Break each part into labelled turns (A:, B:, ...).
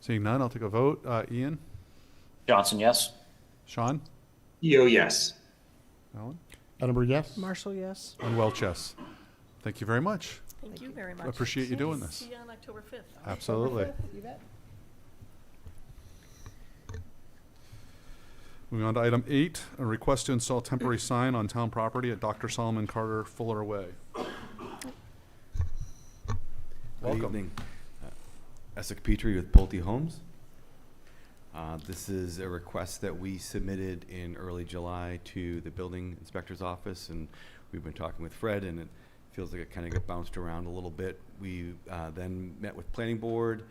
A: Seeing none, I'll take a vote. Uh, Ian,
B: Johnson, yes.
A: Sean,
C: Yo, yes.
A: Alan,
D: Edinburgh, yes.
E: Marshall, yes.
A: and Welchess. Thank you very much.
F: Thank you very much.
A: Appreciate you doing this.
F: See you on October 5th.
A: Absolutely.
E: You bet.
A: Moving on to item eight, a request to install temporary sign on town property at Dr. Solomon Carter Fuller Way.
G: Good
A: Welcome.
G: evening. Uh, Essex Petrie with Pulte Homes. Uh, This is a request that we submitted in early July to the building inspector's office, and we've been talking with Fred, and it feels like it kind of got bounced around a little bit. We uh, then met with planning board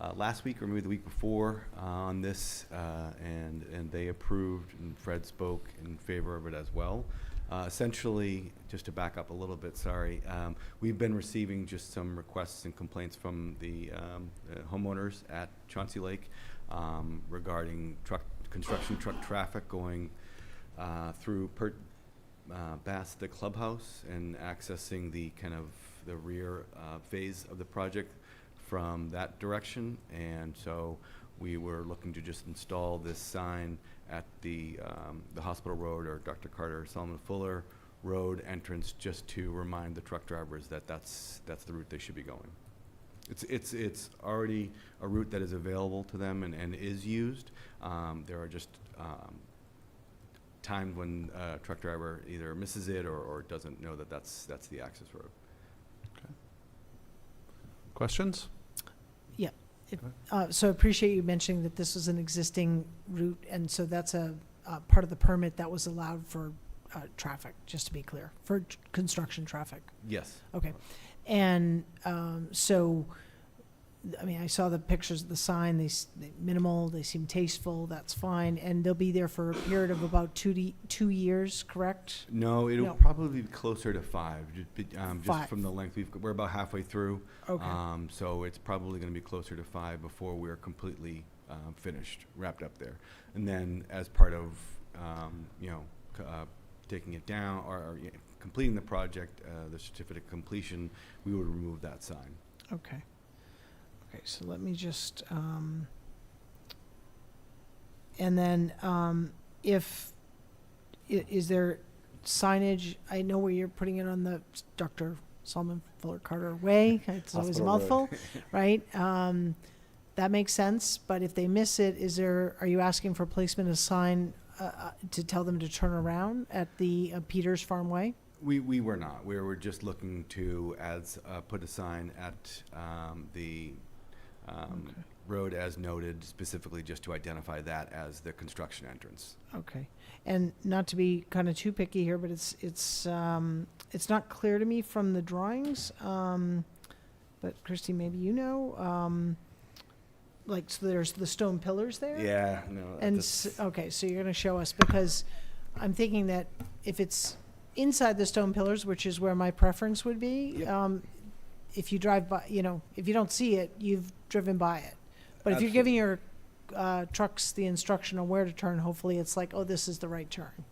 G: uh, last week, or maybe the week before, uh, on this, uh, and, and they approved, and Fred spoke in favor of it as well. Uh, Essentially, just to back up a little bit, sorry, um, we've been receiving just some requests and complaints from the um, uh, homeowners at Chauncey Lake um, regarding truck, construction truck traffic going uh, through per, uh, past the clubhouse and accessing the kind of the rear uh, phase of the project from that direction. And so we were looking to just install this sign at the, um, the hospital road or Dr. Carter Solomon Fuller Road entrance just to remind the truck drivers that that's, that's the route they should be going. It's, it's, it's already a route that is available to them and, and is used. Um, there are just, um, times when a truck driver either misses it or, or doesn't know that that's, that's the access road.
A: Questions?
E: Uh, So I appreciate you mentioning that this was an existing route, and so that's a, uh part of the permit that was allowed for uh, traffic, just to be clear, for tr- construction traffic.
G: Yes.
E: Okay. And um, so, I mean, I saw the pictures of the sign, they, s- they minimal, they seem tasteful, that's fine. And they'll be there for a period of about two, to- two years, correct?
G: No, it'll
E: No.
G: probably be closer to five, ju- be- um, just
E: Five.
G: from the length we've, g- we're about halfway through.
E: Okay.
G: Um, so it's probably going to be closer to five before we're completely um, finished, wrapped up there. And then as part of, um, you know, c- uh, taking it down or, or yeah, completing the project, uh, the certificate of completion, we would remove that sign.
E: Okay. Okay, so let me just, um, and then, um, if, i- is there signage? I know where you're putting it on the s- Dr. Solomon Fuller Carter Way. It's always a
G: Hospital
E: mouthful, right? Um, that makes sense, but if they miss it, is there, are you asking for placement of sign, uh, uh, to tell them to turn around at the uh, Peters Farm Way?
G: We, we were not. We were just looking to as, uh, put a sign at, um, the, um,
E: Okay.
G: road as noted specifically just to identify that as the construction entrance.
E: Okay, and not to be kind of too picky here, but it's, it's, um, it's not clear to me from the drawings, um, but Christy, maybe you know, um, like, so there's the stone pillars there?
G: Yeah, no.
E: And,
G: that's- uh,
E: s- uh, okay, so you're gonna show us, because I'm thinking that if it's inside the stone pillars, which is where my preference would be,
G: Yep.
E: um, if you drive by, you know, if you don't see it, you've driven by it. But if you're giving your, uh, trucks the instruction on where to turn, hopefully it's like, oh, this is the right turn.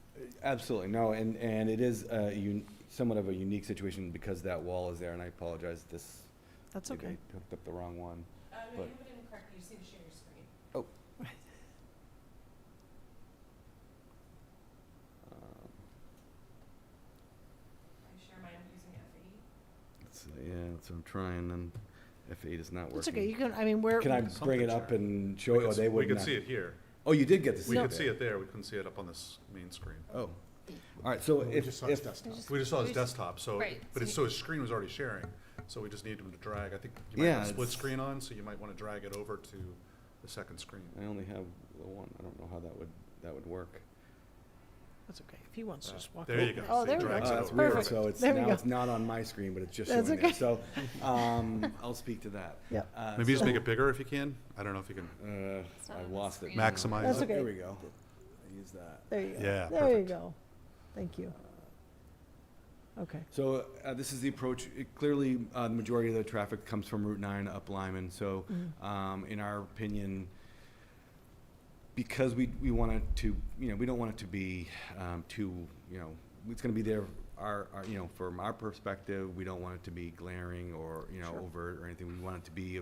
G: Absolutely, no, and, and it is, uh, un- somewhat of a unique situation because that wall is there and I apologize, this.
E: That's
G: maybe
E: okay.
G: I Hooked up the wrong one. Oh. no, you
F: didn't correct Uh, You seem to share your screen.
G: Um,
F: I share mine using FE.
G: it's- Yeah, that's what I'm trying and F eight is not working.
E: It's okay, you can, I mean, we're,
G: Can I
A: Something
G: bring it up
A: share.
G: and show, oh, they would
A: We
G: not-
A: could see it here.
G: Oh, you did get to see
A: We
G: it.
A: could
G: there.
A: see it there. We couldn't see it up on this main screen.
G: Oh, all right, so
D: We just
G: if,
D: saw his
G: if,
D: desktop.
A: We just saw his
F: We just-
A: desktop, so,
F: Right,
A: but
F: so
A: it's,
F: you-
A: so his screen was already sharing. So we just needed him to drag. I think you might
G: Yeah,
A: have a split
G: it's-
A: screen on, so you might want to drag it over to the second screen.
G: I only have the one, I don't know how that would, that would work.
E: that's okay, if he wants to just walk.
A: Uh, There you
E: over
A: go.
E: Oh,
A: See, it
E: there we
G: Oh,
E: go.
A: drags it
G: that's
A: over.
G: weird,
E: Perfect.
G: so it's,
E: There we
G: now
E: go.
G: it's not on my screen, but it's just showing
E: That's
G: there,
E: okay.
G: so, um, I'll speak to that.
E: Yep.
G: Uh,
A: Maybe just
G: so-
A: make it bigger if you can. I don't know if you can.
G: Uh,
F: It's not
G: I
F: on the
G: lost it.
F: screen.
A: Maximize
E: That's
G: Oh,
E: okay.
G: There we go. I use that.
E: There you go.
A: Yeah,
E: There you
A: perfect.
E: go. Thank you. Okay,
G: So uh, this is the approach, It- clearly, uh, the majority of the traffic comes from Route 9 up Lyman, so um, in our opinion, because we, we want it to, you know, we don't want it to be um, too, you know, it's going to be there, our, our, you know, from our perspective, we don't want it to be glaring or, you know, overt or anything. We want it to be